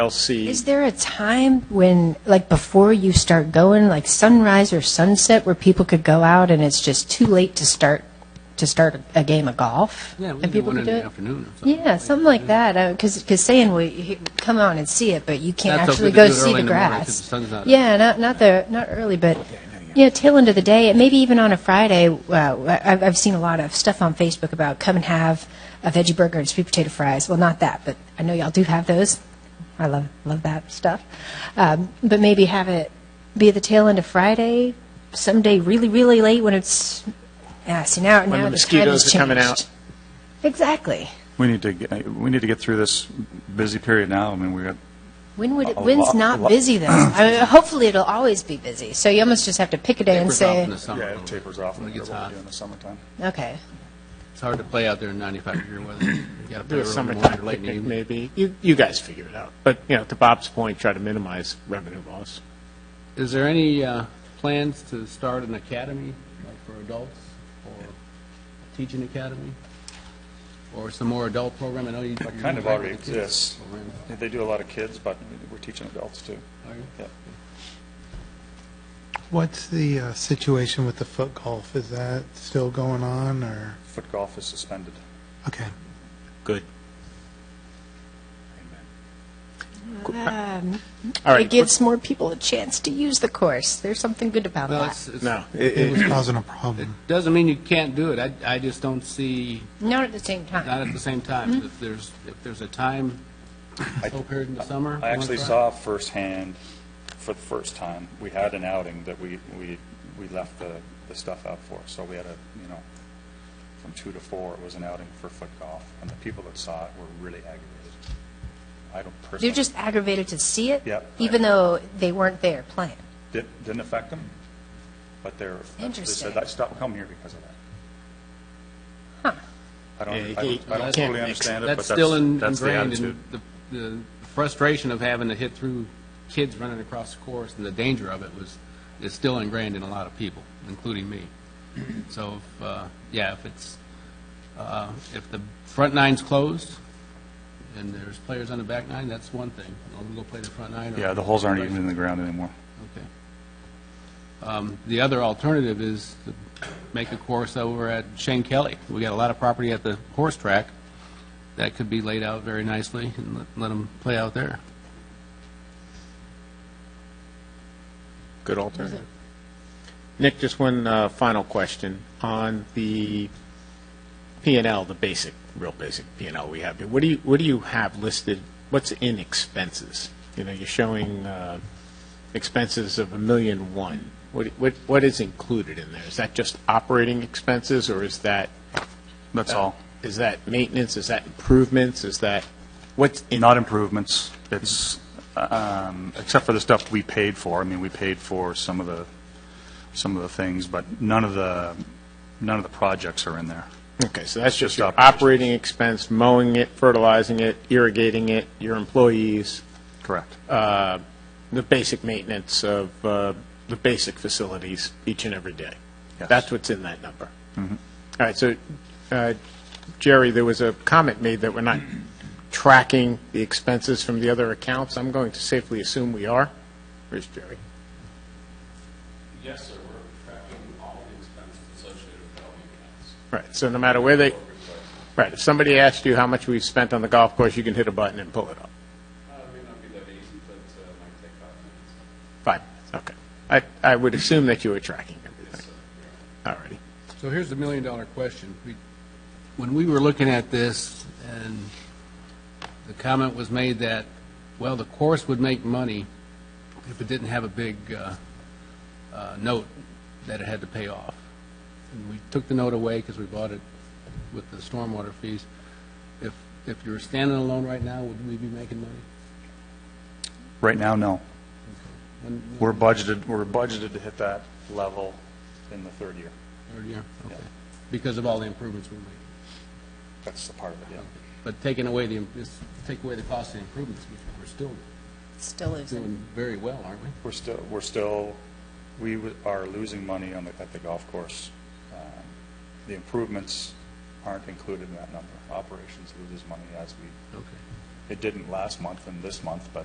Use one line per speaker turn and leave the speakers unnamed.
LC.
Is there a time when, like, before you start going, like sunrise or sunset, where people could go out and it's just too late to start, to start a game of golf?
Yeah,
And
we can do
people
one
could
in
do
the
it?
afternoon or something.
Yeah, something like that, because, because saying, well, you- come on and see it, but you can't
That's what
actually
we
go
do it
see
early
the
in the morning 'cause
grass.
the sun's not up.
Yeah, not, not the, not early, but, you know, tail end of the day, and maybe even on a Friday, uh, I've, I've seen a lot of stuff on Facebook about come and have a veggie burger and sweet potato fries. Well, not that, but I know y'all do have those. I love, love that stuff. Um, but maybe have it be at the tail end of Friday, someday really, really late when it's, yeah, see, now,
When the
now the time has
mosquitoes are coming
changed.
out.
Exactly.
We need to, get- we need to get through this busy period now. I mean, we got,
When would it,
A
when's
lot-
not
lot-
busy though? I mean, hopefully it'll always be busy. So you almost just have to pick a day and
Tapers off
say,
in the summer a
yeah,
little
it
bit.
tapers off a
When it
little
gets
bit
hot.
during the summertime.
okay,
It's hard to play out there in 95 degree weather. You gotta play
Do a
early in the morning
summertime
or late in the
picnic,
evening.
maybe. You, you guys figure it out. But, you know, to Bob's point, try to minimize revenue loss.
Is there any uh, plans to start an academy, like for adults, or teaching academy? Or some more adult program? I know you.
It
you
kind of
work
already
with the kids
exists.
program.
They do a lot of kids, but we're teaching adults too.
Are you?
Yeah.
What's the uh, situation with the foot golf? Is that still going on, or,
Foot golf is suspended.
okay.
um,
All
it
right.
gives more people a chance to use the course. There's something good about
Well,
that.
it's, it's-
No.
It was causing a problem.
doesn't mean you can't do it. I, I just don't see,
Not at the same time.
not at the same
Mm-hmm.
time. If there's, if there's a time, whole period in the summer.
I
you
actually
wanna try?
saw firsthand, for the first time, we had an outing that we, we, we left the, the stuff out for. So we had a, you know, from two to four, it was an outing for foot golf, and the people that saw it were really aggravated. I don't personally.
They're just aggravated to see it,
Yeah.
even though they weren't there playing.
Di- Didn't affect them, but they're, they
Interesting.
said, I stopped coming here because of that. I don't,
Yeah, you can't-
I don't- I
you
don't
can't
totally
mix.
understand it, but
That's
that's,
still in-
that's the
ingrained
attitude.
in the- the frustration of having to hit through kids running across the course and the danger of it was, is still ingrained in a lot of people, including me. So, if, uh, yeah, if it's, uh, if the front nine's closed and there's players on the back nine, that's one thing. I'll go play the front nine. or-
Yeah, the holes aren't even in the ground anymore.
Okay. Um, The other alternative is to make a course over at Shane Kelly. We got a lot of property at the horse track that could be laid out very nicely and let- let them play out there.
Good alternative. Nick, just one uh, final question on the P and L, the basic, real basic P and L we have. here. What do you, what do you have listed? What's in expenses? You know, you're showing uh, expenses of a million one. What, what, what is included in there? Is that just operating expenses or is that?
That's all.
Is that maintenance? Is that improvements? Is that, what's in?
Not improvements, it's, um, except for the stuff we paid for. I mean, we paid for some of the, some of the things, but none of the, none of the projects are in there.
Okay, so that's just
Just
your
operations.
operating expense, mowing it, fertilizing it, irrigating it, your employees,
Correct.
uh, the basic maintenance of uh, the basic facilities each and every day.
Yes. Mm-hmm.
That's what's in that number. All right, so uh, Jerry, there was a comment made that we're not tracking the expenses from the other accounts. I'm going to safely assume we are. Where's Jerry?
Yes, sir, we're tracking all the expenses associated with development accounts.
Right, so no matter where they, right, if somebody asked you how much we've spent on the golf course, you can hit a button and pull it up.
Uh, It may not be that easy, but uh, it might take five minutes.
Five, okay. I, I would assume that you were tracking everything. All righty.
So here's the million-dollar question. We- When we were looking at this, and the comment was made that, well, the course would make money if it didn't have a big uh, uh, note that it had to pay off. And we took the note away because we bought it with the stormwater fees. If, if you were standing alone right now, would we be making money?
Right now, no.
When-
We're budgeted, we're budgeted to hit that level in the third year.
Third year?
Yeah.
Okay. Because of all the improvements we made.
That's the part of it, yeah.
But taking away the, just take away the cost of the improvements, which we're still
Still isn't.
doing very well, aren't we?
We're still, we're still, we w- are losing money on the, at the golf course. Um, The improvements aren't included in that number. Operations loses money as we,
Okay.
it didn't last month and this month, but